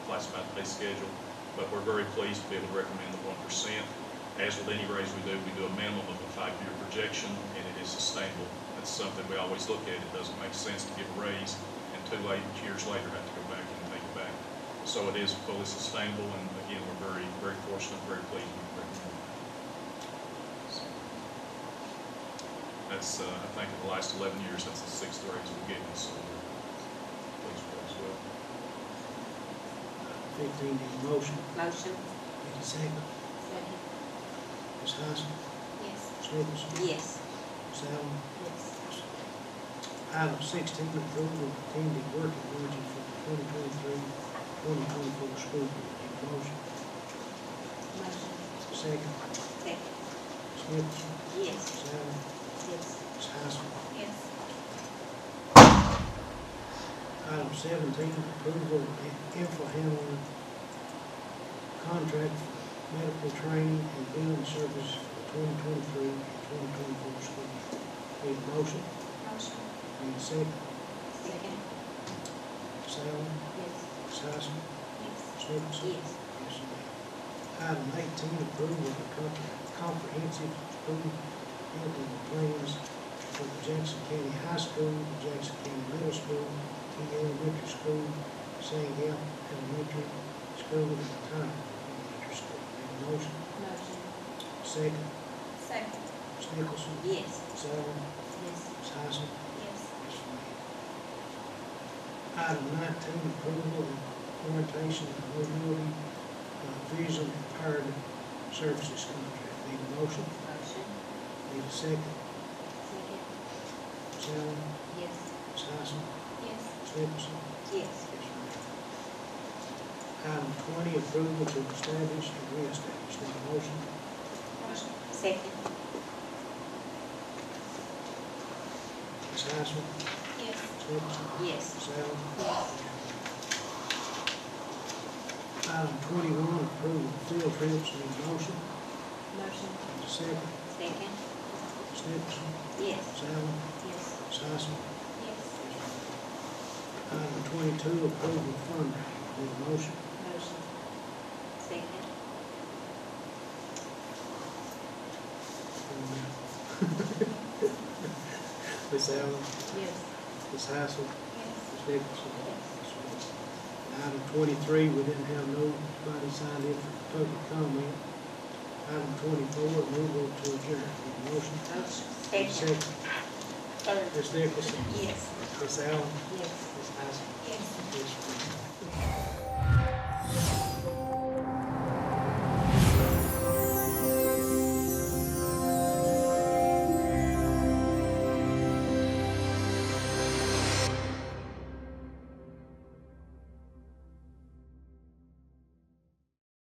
pay schedule, but we're very pleased to be able to recommend the one percent. As with any raise we do, we do a minimum of a five-year projection, and it is sustainable. That's something we always look at. It doesn't make sense to give a raise and two late, years later have to go back and take it back. So it is fully sustainable, and again, we're very, very fortunate, very pleased with the recommendation. That's, uh, I think in the last eleven years, that's the sixth raise we've given, so we're pleased with that as well. Fifteen, need a motion, Motion? need a second. Ms. Hyson, Yes. Ms. Nicholson, Yes. Ms. Allen. Yes. Item sixteen, approval of attending working budget for the twenty twenty-three, twenty twenty-four school year. Need a motion, Motion. second. Second. Ms. Nicholson, Yes. Ms. Allen, Yes. Ms. Hyson. Yes. Item seventeen, approval of info handling contract for medical training and billing service for twenty twenty-three and twenty twenty-four school year. Need a motion, Motion. need a second. Second. Ms. Allen, Yes. Ms. Hyson, Yes. Ms. Nicholson. Yes. Yes, ma'am. Item eighteen, approval of the comp- comprehensive school building plans for the Jackson County High School, the Jackson County Middle School, King Elementary School, San Gap Elementary School, and Tyler Elementary School. Need a motion? Motion? Second. Second. Ms. Nicholson? Yes. Ms. Allen? Yes. Ms. Hyson? Yes. Yes, ma'am. Item nineteen, approval of orientation and mobility uh, vision impaired services contract. Need a motion, Motion? need a second. Second. Ms. Allen, Yes. Ms. Yes. Hyson, Ms. Nicholson. Yes, Yes. ma'am. Item twenty, approval to establish and reestablish. Need a motion, Motion. Second. Ms. Hyson, Yes. Ms. Nicholson. Yes. Ms. Allen. Yes. Item twenty-one, approval of field trips. Need a motion, Motion? need a second. Second. Ms. Nicholson, Yes. Ms. Allen, Yes. Ms. Hyson. Yes. Item twenty-two, approval of fundraising, need a motion, Motion? Second. Ms. Allen, Yes. Ms. Hassel, Yes. Ms. Nicholson. Item twenty-three, we didn't have nobody signed in for public comment. Item twenty-four, move on to adjourn, need a motion. Motion? Need a Second. Third. Ms. Nicholson, Yes. Ms. Allen, Yes. Ms. Hassel, Yes. Ms.